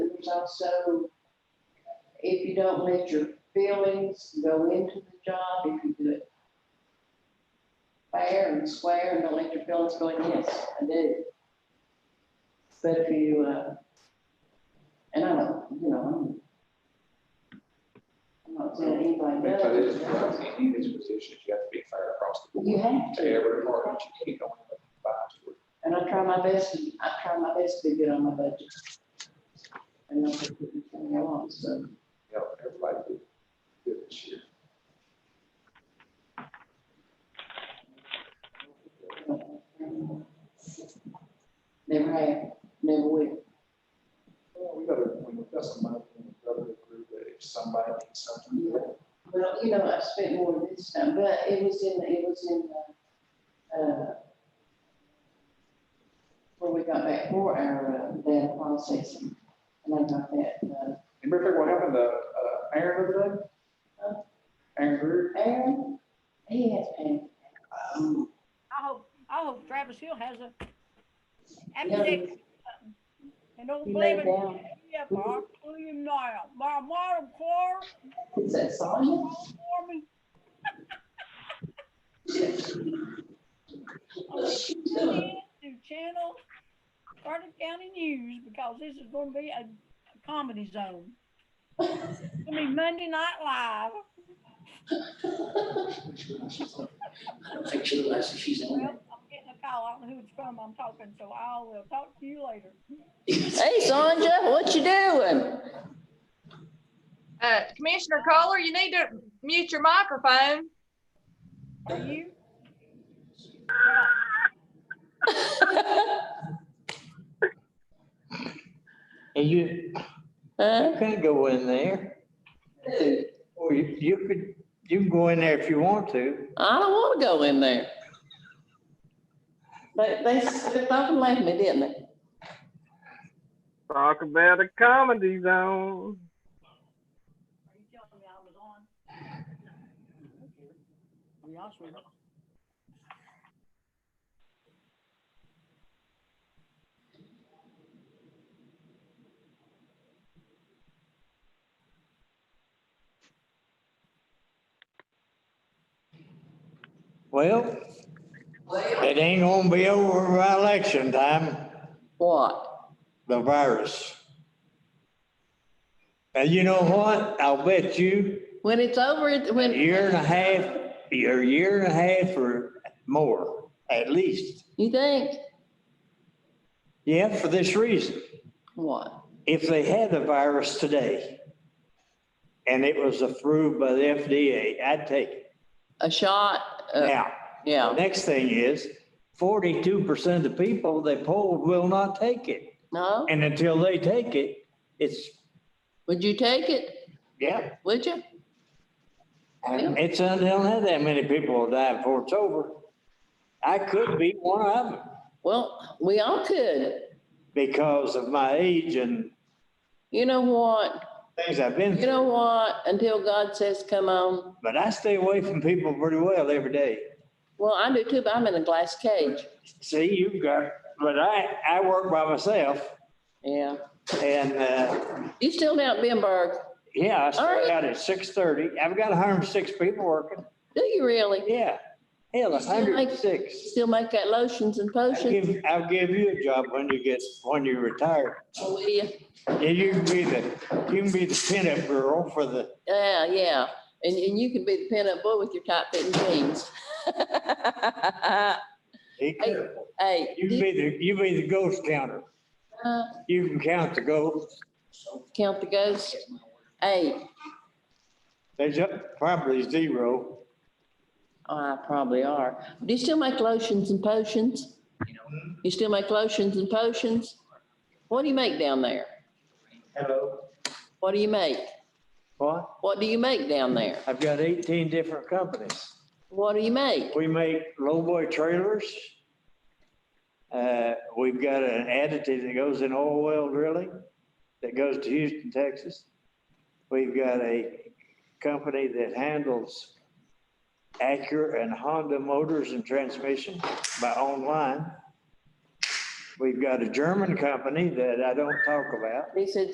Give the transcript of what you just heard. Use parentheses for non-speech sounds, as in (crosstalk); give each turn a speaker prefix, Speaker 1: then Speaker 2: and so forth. Speaker 1: there's also, if you don't let your feelings go into the job, if you do it fair and square and don't let your feelings go in, yes, I do. But if you, uh, and I don't, you know, I'm I'm not saying anybody
Speaker 2: But it is,
Speaker 1: does.
Speaker 2: in any of these positions, you have to be fair across the
Speaker 1: You
Speaker 2: board.
Speaker 1: have
Speaker 2: To
Speaker 1: to.
Speaker 2: every department, you can't only buy to it.
Speaker 1: And I try my best, to- I try my best to be good on my budget. And I'm gonna put it on, so.
Speaker 2: You know, everybody did good this year.
Speaker 1: Never have, never will.
Speaker 2: Well, we gotta, we got somebody, we gotta agree that if somebody needs something, you know,
Speaker 1: Well, you know, I've spent more this time, but it was in, it was in, uh, uh, when we got back for our, uh, that process, and I got that, uh,
Speaker 2: you remember what happened to, uh, Aaron the other day?
Speaker 1: Huh?
Speaker 2: Aaron Greer?
Speaker 1: Aaron, he has been, um,
Speaker 3: I hope, I hope Travis Hill has a
Speaker 1: Yeah.
Speaker 3: appendix. And don't
Speaker 1: He
Speaker 3: believe
Speaker 1: laid
Speaker 3: it.
Speaker 1: down.
Speaker 3: Yeah, I'll pull him now. My water car,
Speaker 1: is that Sonia?
Speaker 3: for me. Tune (laughs)
Speaker 1: Yes.
Speaker 3: in to channel Carter County News because this is gonna be a a comedy zone. It's gonna be Monday Night Live.
Speaker 4: I don't think she realizes she's on
Speaker 3: Well, I'm getting a call. I don't know who it's from. I'm talking, so I will talk to you later.
Speaker 4: there.
Speaker 1: (laughs)
Speaker 5: Hey, Sonja, what you doing?
Speaker 6: Uh, Commissioner Kohler, you need to mute your microphone.
Speaker 3: Are you?
Speaker 7: And you, you
Speaker 5: Huh?
Speaker 7: can't go in there. Or you, you could, you can go in there if you want to.
Speaker 5: I don't want to go in there. They, they slipped up and left me, didn't they?
Speaker 8: Talk about a comedy zone.
Speaker 3: Are you telling me I was on? I'll be honest with you.
Speaker 7: Well, it ain't gonna be over by election time,
Speaker 5: What?
Speaker 7: the virus. And you know what? I'll bet you
Speaker 5: When it's over, it-
Speaker 7: a
Speaker 5: when.
Speaker 7: year and a half, a year and a half or more, at least.
Speaker 5: You think?
Speaker 7: Yeah, for this reason.
Speaker 5: What?
Speaker 7: if they had the virus today and it was approved by the FDA, I'd take it.
Speaker 5: A shot? Uh,
Speaker 7: Now, the
Speaker 5: Yeah,
Speaker 7: next thing is forty-two percent of the people they polled will not take it.
Speaker 5: no?
Speaker 7: And until they take it, it's,
Speaker 5: Would you take it?
Speaker 7: yeah,
Speaker 5: Would you?
Speaker 7: and it's, uh, they don't have that many people will die before it's over. I could be one of them
Speaker 5: Well, we all could.
Speaker 7: because of my age and
Speaker 5: You know what?
Speaker 7: things I've been
Speaker 5: You
Speaker 7: through.
Speaker 5: know what? Until God says, come on.
Speaker 7: But I stay away from people pretty well every day.
Speaker 5: Well, I do too, but I'm in a glass cage.
Speaker 7: See, you've got, but I, I work by myself.
Speaker 5: Yeah.
Speaker 7: And, uh,
Speaker 5: You still down at Benberg?
Speaker 7: yeah, I start
Speaker 5: Alright.
Speaker 7: out at six thirty. I've got hundred and six people working.
Speaker 5: Do you really?
Speaker 7: Yeah. Hell,
Speaker 5: You still
Speaker 7: hundred
Speaker 5: make-
Speaker 7: and six.
Speaker 5: Still make that lotions and
Speaker 7: I'll
Speaker 5: potions?
Speaker 7: give, I'll give you a job when you get, when you retire.
Speaker 5: Oh, will you?
Speaker 7: Yeah, you can be the, you can be the pinup girl for the,
Speaker 5: Yeah, yeah. And, and you can be the pinup boy with your tight fitting jeans. (laughs)
Speaker 7: be careful.
Speaker 5: Hey,
Speaker 7: You
Speaker 5: do
Speaker 7: can
Speaker 5: you,
Speaker 7: be the, you be the ghost counter.
Speaker 5: uh,
Speaker 7: You can count the ghosts.
Speaker 5: count the ghosts? Hey,
Speaker 7: There's up- probably zero.
Speaker 5: oh, I probably are. Do you still make lotions and potions? You still make lotions and potions? What do you make down there?
Speaker 7: Hello.
Speaker 5: What do you make?
Speaker 7: What?
Speaker 5: What do you make down there?
Speaker 7: I've got eighteen different companies.
Speaker 5: What do you make?
Speaker 7: We make lowboy trailers. Uh, we've got an additive that goes in oil well drilling that goes to Houston, Texas. We've got a company that handles Acura and Honda motors and transmission by online. We've got a German company that I don't talk about.
Speaker 5: He said,